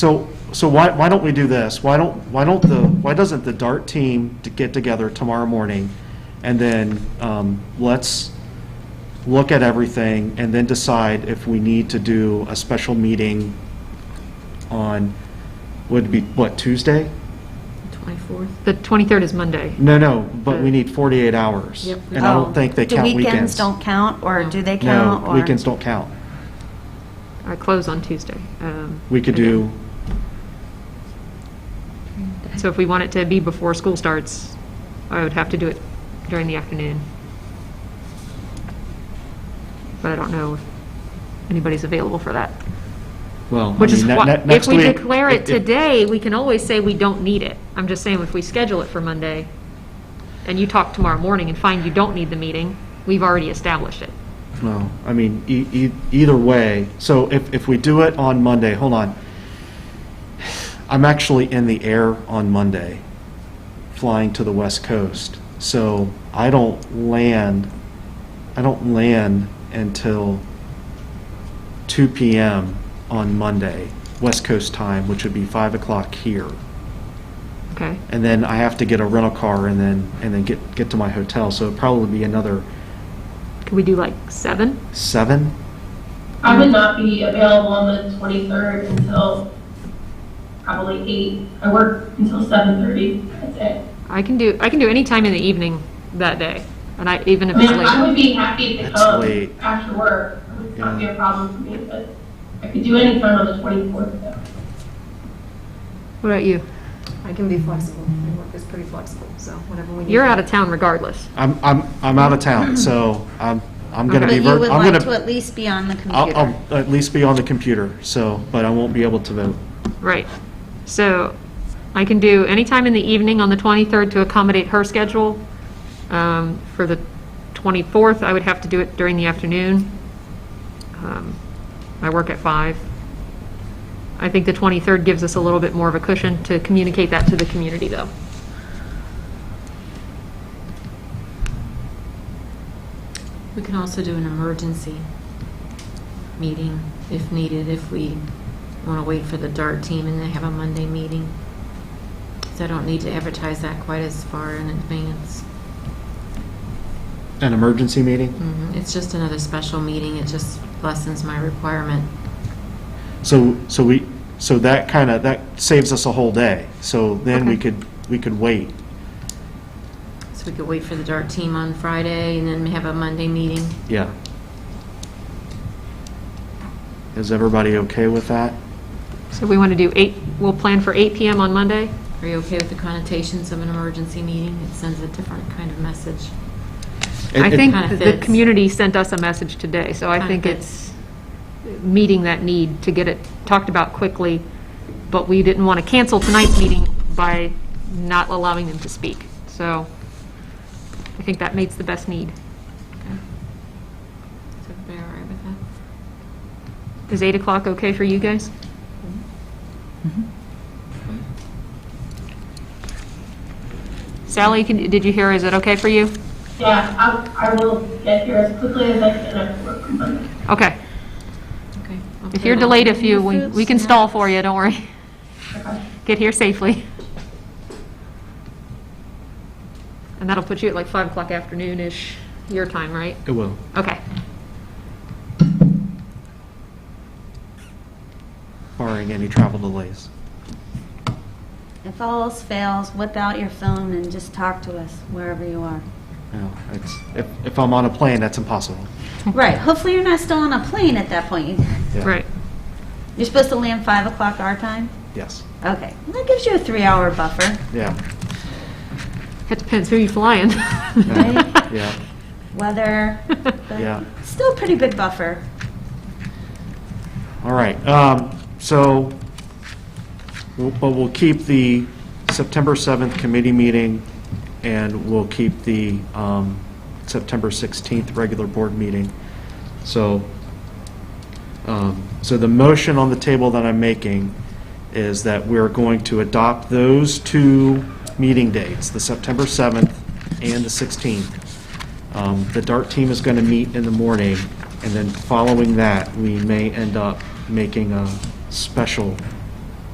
So, so why, why don't we do this? Why don't, why don't the, why doesn't the DART team to get together tomorrow morning? And then, um, let's look at everything and then decide if we need to do a special meeting on, would be, what, Tuesday? 24th? The 23rd is Monday. No, no, but we need forty-eight hours. Yep. And I Mm. Oh, don't think they count Do weekends. weekends don't count, or do they count? No, or- weekends don't count. I close on Tuesday. um, We could again. do, So if we want it to be before school starts, I would have to do it during the afternoon. But I don't know if anybody's available for that. well, I Which is mean, ne- why, ne- if next we week. declare it if- if- today, we can always say we don't need it. I'm just saying, if we schedule it for Monday, and you talk tomorrow morning and find you don't need the meeting, we've already established it. No, I mean, e- e- either way, so if, if we do it on Monday, hold on. I'm actually in the air on Monday, flying to the West Coast. So I don't land, I don't land until 2 PM on Monday, West Coast time, which would be 5 o'clock here. Okay? And then I have to get a rental car and then, and then get, get to my hotel. So it'd probably be another Could we do like seven? 7? I would not be available on the 23rd until probably 8. I work until 7:30, that's it. I can do, I can do any time in the evening that day, and I, even if I mean, it's I late. would be happy to That's late. come after work, it would not be a problem for me, but I could do any time on the 24th though. What about you? I can be flexible. My work is pretty flexible, so whatever we need. You're out of town regardless. I'm, I'm, I'm out of town, so I'm, I'm gonna Okay. be, But vir- you I'm would like to gonna, at least be on the computer. I'll, I'll at least be on the computer, so, but I won't be able to vote. Right. So I can do any time in the evening on the 23rd to accommodate her schedule. Um, For the 24th, I would have to do it during the afternoon. Um, I work at five. I think the 23rd gives us a little bit more of a cushion to communicate that to the community, though. We can also do an emergency meeting if needed, if we want to wait for the DART team and they have a Monday meeting. So I don't need to advertise that quite as far in advance. An emergency meeting? Mm. Mhm. It's just another special meeting, it just lessens my requirement. So, so we, so that kinda, that saves us a whole day, so then we could, we could wait. So we could wait for the DART team on Friday and then have a Monday meeting. Yeah. Is everybody okay with that? So we want to do eight, we'll plan for 8 PM on Monday? Are you okay with the connotations of an emergency meeting? It sends a different kind of message. It- I it- think Kinda the fits. community sent us a message today, so I Kinda think it's fits. meeting that need to get it talked about quickly, but we didn't want to cancel tonight's meeting by not allowing them to speak. So I think that meets the best need. Okay. Is everybody all right with that? Is 8 o'clock okay for you guys? Mm-hmm. Sally, can- did you hear, is it okay for you? Yeah, I, I will get here as quickly as I can after work on Monday. Okay. Okay. I'll If you're table it. delayed a few, we we can stall for you, don't worry. Get here safely. And that'll put you at like 5 o'clock afternoon-ish, your time, right? It will. Okay. Barring any travel delays. If all else fails, whip out your phone and just talk to us wherever you are. No, it's, if, if I'm on a plane, that's impossible. Right, hopefully you're not still on a plane at that point. Yeah. Right. You're supposed to land 5 o'clock our time? Yes, Okay, Well, that gives you a three-hour buffer. yeah, It depends who you're flying. Right. yeah, Weather, but yeah. still a pretty big buffer. All right, um, so, we'll- but we'll keep the September 7th committee meeting, and we'll keep the um, September 16th regular board meeting. So, um, so the motion on the table that I'm making is that we're going to adopt those two meeting dates, the September 7th and the 16th. Um, The DART team is going to meet in the morning, and then following that, we may end up making a special